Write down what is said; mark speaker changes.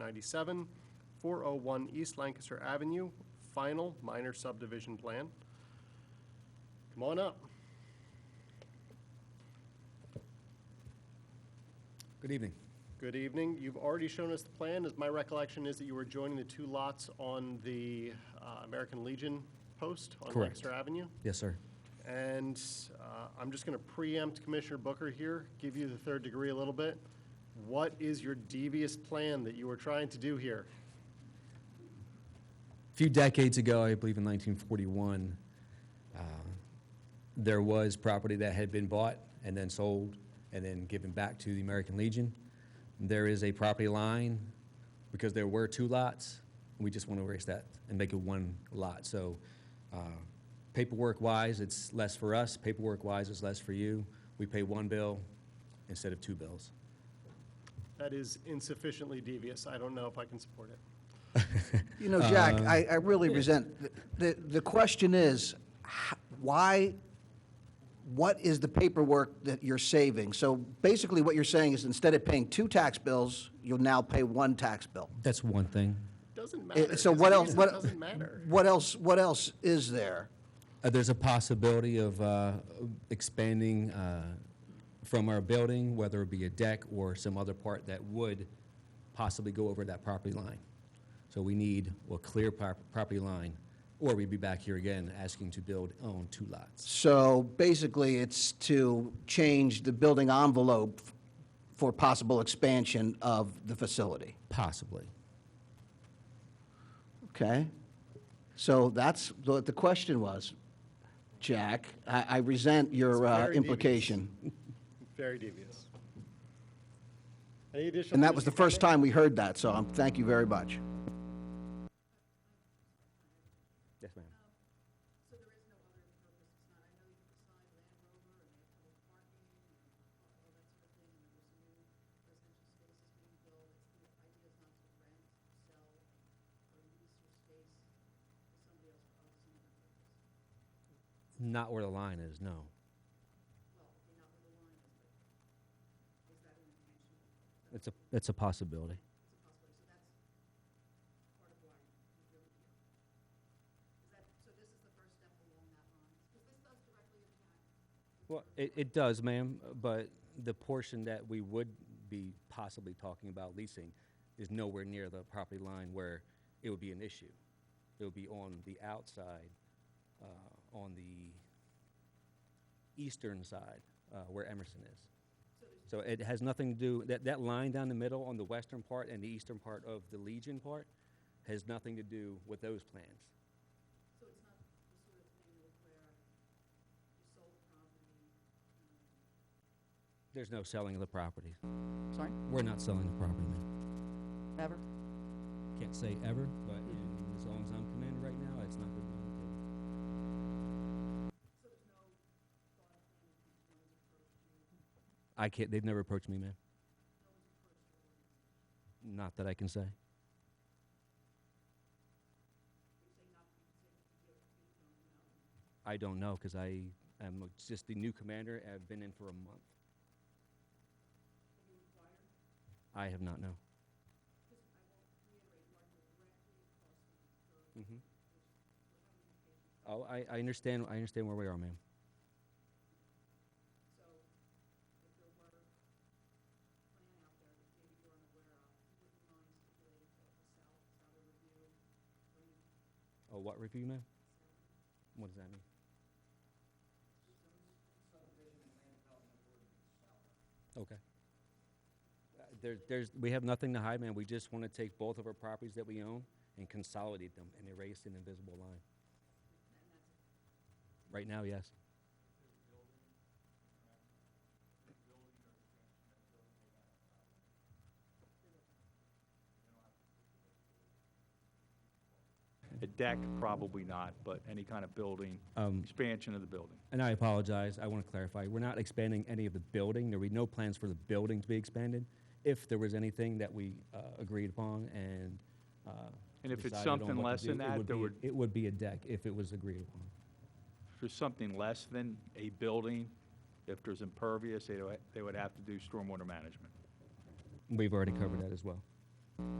Speaker 1: ninety-seven, four oh one East Lancaster Avenue, final minor subdivision plan. Come on up.
Speaker 2: Good evening.
Speaker 1: Good evening. You've already shown us the plan, as my recollection is that you were joining the two lots on the uh, American Legion post on
Speaker 2: Correct.
Speaker 1: Lancaster Avenue.
Speaker 2: Yes, sir.
Speaker 1: And uh, I'm just going to preempt Commissioner Booker here, give you the third degree a little bit. What is your devious plan that you were trying to do here?
Speaker 2: A few decades ago, I believe in 1941, uh, there was property that had been bought and then sold and then given back to the American Legion. There is a property line because there were two lots. We just want to erase that and make it one lot. So uh, paperwork-wise, it's less for us. Paperwork-wise, it's less for you. We pay one bill instead of two bills.
Speaker 1: That is insufficiently devious. I don't know if I can support it.
Speaker 3: You know,
Speaker 1: Uh,
Speaker 3: Jack, I, I really resent, the, the question is, h- why, what is the paperwork that you're saving? So basically, what you're saying is instead of paying two tax bills, you'll now pay one tax bill.
Speaker 2: That's one thing.
Speaker 1: Doesn't
Speaker 3: Eh,
Speaker 1: matter.
Speaker 3: So
Speaker 1: It's
Speaker 3: what
Speaker 1: the
Speaker 3: else,
Speaker 1: reason
Speaker 3: what?
Speaker 1: It doesn't matter.
Speaker 3: What else, what else is there?
Speaker 2: Uh, There's a possibility of uh, expanding uh, from our building, whether it be a deck or some other part that would possibly go over that property line. So we need a clear prop- property line, or we'd be back here again asking to build on two lots.
Speaker 3: So basically, it's to change the building envelope for possible expansion of the facility.
Speaker 2: Possibly.
Speaker 3: Okay. So that's what the question was, Jack. I I resent your
Speaker 1: It's
Speaker 3: uh,
Speaker 1: very
Speaker 3: implication.
Speaker 1: Very devious. Any additional?
Speaker 3: And that was the
Speaker 1: commissioner
Speaker 3: first time we heard that, so I'm- thank you very much.
Speaker 2: Yes, ma'am. Not where the line is, no. It's a, it's a possibility. Well, it, it does, ma'am, but the portion that we would be possibly talking about leasing is nowhere near the property line where it would be an issue. It would be on the outside, uh, on the eastern side, uh, where Emerson is. So it has nothing to do, that, that line down the middle on the western part and the eastern part of the Legion part has nothing to do with those plans. There's no selling of the property.
Speaker 4: Sorry,
Speaker 2: We're not selling the property, ma'am.
Speaker 4: ever?
Speaker 2: Can't say ever, but in, as long as I'm commanded right now, it's not been on the table. I can't, they've never approached me, ma'am. Not that I can say. I don't know, because I am just the new commander, and I've been in for a month. I have not, no. Mhm. Oh, I, I understand, I understand where we are, ma'am. Oh, what review, ma'am? What does that mean? Okay. Uh, There's, there's, we have nothing to hide, man. We just want to take both of our properties that we own and consolidate them and erase an invisible line. Right now, yes.
Speaker 5: A deck, probably not, but any kind of building,
Speaker 2: Um,
Speaker 5: expansion of the building.
Speaker 2: And I apologize, I want to clarify, we're not expanding any of the building, there were no plans for the building to be expanded. If there was anything that we uh, agreed upon and uh,
Speaker 5: And if it's
Speaker 2: decided on
Speaker 5: something
Speaker 2: what to
Speaker 5: less
Speaker 2: do,
Speaker 5: than
Speaker 2: it
Speaker 5: that,
Speaker 2: would
Speaker 5: there
Speaker 2: be-
Speaker 5: would-
Speaker 2: It would be a deck if it was agreed upon.
Speaker 5: For something less than a building, if there's impervious, they, would- they would have to do stormwater management. Mm.
Speaker 2: We've already covered that as well.